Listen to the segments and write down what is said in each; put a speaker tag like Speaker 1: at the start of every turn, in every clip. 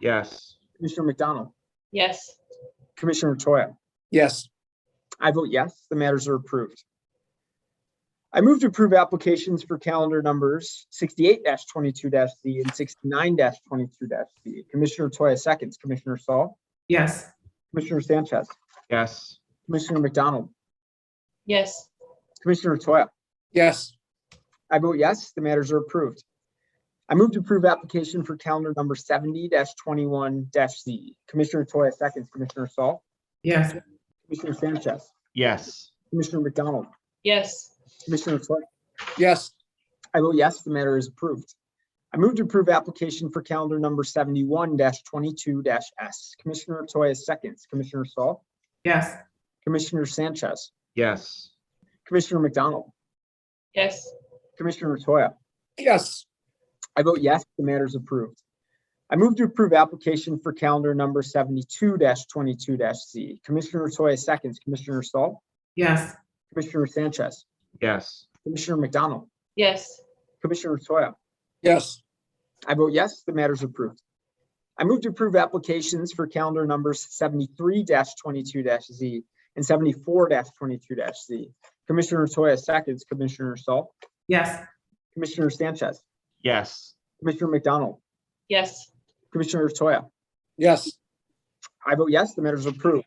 Speaker 1: Yes.
Speaker 2: Commissioner McDonald,
Speaker 3: Yes.
Speaker 2: Commissioner Toya.
Speaker 4: Yes.
Speaker 2: I vote yes, the matters are approved. I move to approve applications for calendar numbers sixty-eight twenty-two Z and sixty-nine twenty-two Z. Commissioner Toya seconds, Commissioner Saul,
Speaker 5: yes,
Speaker 2: Commissioner Sanchez,
Speaker 1: Yes.
Speaker 2: Commissioner McDonald,
Speaker 3: Yes.
Speaker 2: Commissioner Toya.
Speaker 4: Yes.
Speaker 2: I vote yes, the matters are approved. I move to approve application for calendar number seventy twenty-one Z. Commissioner Toya seconds, Commissioner Saul,
Speaker 5: yes,
Speaker 2: Commissioner Sanchez,
Speaker 1: Yes.
Speaker 2: Commissioner McDonald,
Speaker 3: Yes.
Speaker 2: Commissioner Toya.
Speaker 4: Yes.
Speaker 2: I vote yes, the matter is approved. I move to approve application for calendar number seventy-one twenty-two S. Commissioner Toya seconds, Commissioner Saul,
Speaker 5: yes,
Speaker 2: Commissioner Sanchez,
Speaker 1: Yes.
Speaker 2: Commissioner McDonald,
Speaker 3: Yes.
Speaker 2: Commissioner Toya.
Speaker 4: Yes.
Speaker 2: I vote yes, the matter is approved. I move to approve application for calendar number seventy-two twenty-two Z. Commissioner Toya seconds, Commissioner Saul,
Speaker 5: yes,
Speaker 2: Commissioner Sanchez,
Speaker 1: Yes.
Speaker 2: Commissioner McDonald,
Speaker 3: Yes.
Speaker 2: Commissioner Toya.
Speaker 4: Yes.
Speaker 2: I vote yes, the matter is approved. I move to approve applications for calendar numbers seventy-three twenty-two Z and seventy-four twenty-two Z. Commissioner Toya seconds, Commissioner Saul,
Speaker 5: yes,
Speaker 2: Commissioner Sanchez,
Speaker 1: Yes.
Speaker 2: Commissioner McDonald,
Speaker 3: Yes.
Speaker 2: Commissioner Toya.
Speaker 4: Yes.
Speaker 2: I vote yes, the matter is approved.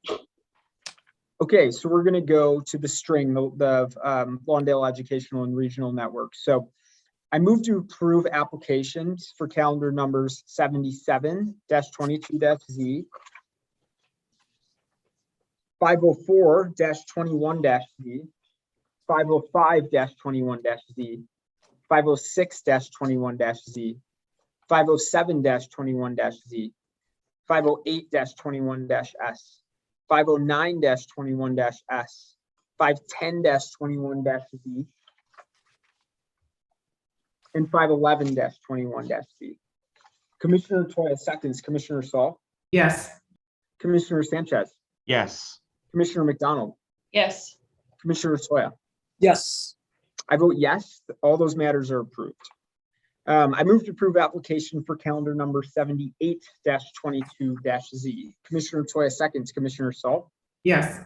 Speaker 2: Okay, so we're gonna go to the string, the, the um, Lawndale Educational and Regional Network. So I move to approve applications for calendar numbers seventy-seven twenty-two Z, five oh four twenty-one Z, five oh five twenty-one Z, five oh six twenty-one Z, five oh seven twenty-one Z, five oh eight twenty-one S, five oh nine twenty-one S, five ten twenty-one Z, and five eleven twenty-one Z. Commissioner Toya seconds, Commissioner Saul,
Speaker 5: yes,
Speaker 2: Commissioner Sanchez,
Speaker 1: Yes.
Speaker 2: Commissioner McDonald,
Speaker 3: Yes.
Speaker 2: Commissioner Toya.
Speaker 4: Yes.
Speaker 2: I vote yes, all those matters are approved. Um, I move to approve application for calendar number seventy-eight twenty-two Z. Commissioner Toya seconds, Commissioner Saul,
Speaker 5: yes,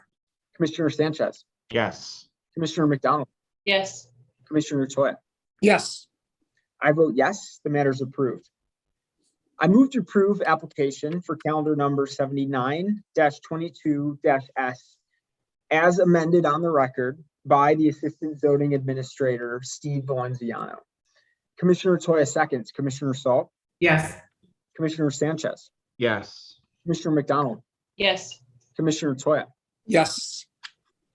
Speaker 2: Commissioner Sanchez,
Speaker 1: Yes.
Speaker 2: Commissioner McDonald,
Speaker 3: Yes.
Speaker 2: Commissioner Toya.
Speaker 4: Yes.
Speaker 2: I vote yes, the matter is approved. I move to approve application for calendar number seventy-nine twenty-two S as amended on the record by the Assistant Zoning Administrator, Steve Valenziano. Commissioner Toya seconds, Commissioner Saul,
Speaker 5: yes,
Speaker 2: Commissioner Sanchez,
Speaker 1: Yes.
Speaker 2: Commissioner McDonald,
Speaker 3: Yes.
Speaker 2: Commissioner Toya.
Speaker 4: Yes.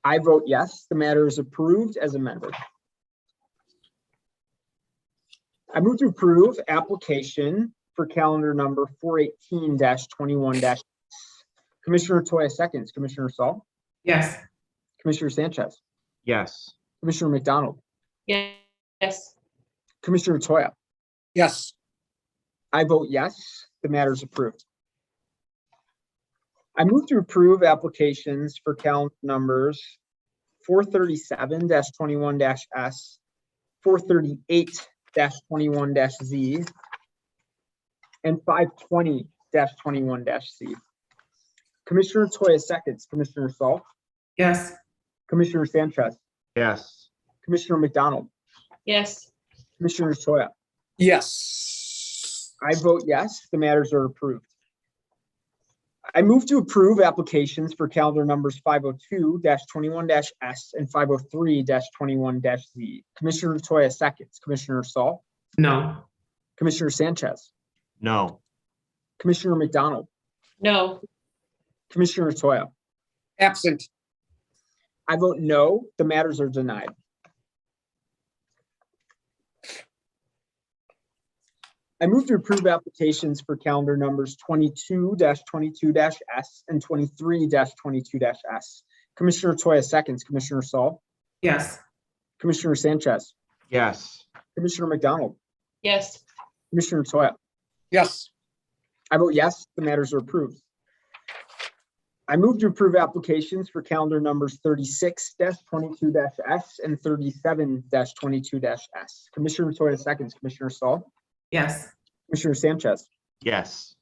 Speaker 2: I vote yes, the matter is approved as amended. I move to approve application for calendar number four eighteen twenty-one Commissioner Toya seconds, Commissioner Saul,
Speaker 5: yes,
Speaker 2: Commissioner Sanchez,
Speaker 1: Yes.
Speaker 2: Commissioner McDonald,
Speaker 3: Yes.
Speaker 2: Commissioner Toya.
Speaker 4: Yes.
Speaker 2: I vote yes, the matter is approved. I move to approve applications for count numbers four thirty-seven twenty-one S, four thirty-eight twenty-one Z, and five twenty twenty-one Z. Commissioner Toya seconds, Commissioner Saul,
Speaker 5: yes,
Speaker 2: Commissioner Sanchez,
Speaker 1: Yes.
Speaker 2: Commissioner McDonald,
Speaker 3: Yes.
Speaker 2: Commissioner Toya.
Speaker 4: Yes.
Speaker 2: I vote yes, the matters are approved. I move to approve applications for calendar numbers five oh two twenty-one S and five oh three twenty-one Z. Commissioner Toya seconds, Commissioner Saul,
Speaker 5: no,
Speaker 2: Commissioner Sanchez,
Speaker 1: No.
Speaker 2: Commissioner McDonald,
Speaker 3: No.
Speaker 2: Commissioner Toya.
Speaker 4: Absent.
Speaker 2: I vote no, the matters are denied. I move to approve applications for calendar numbers twenty-two twenty-two S and twenty-three twenty-two S. Commissioner Toya seconds, Commissioner Saul,
Speaker 5: yes,
Speaker 2: Commissioner Sanchez,
Speaker 1: Yes.
Speaker 2: Commissioner McDonald,
Speaker 3: Yes.
Speaker 2: Commissioner Toya.
Speaker 4: Yes.
Speaker 2: I vote yes, the matters are approved. I move to approve applications for calendar numbers thirty-six twenty-two S and thirty-seven twenty-two S. Commissioner Toya seconds, Commissioner Saul,
Speaker 5: yes,
Speaker 2: Commissioner Sanchez,
Speaker 1: Yes.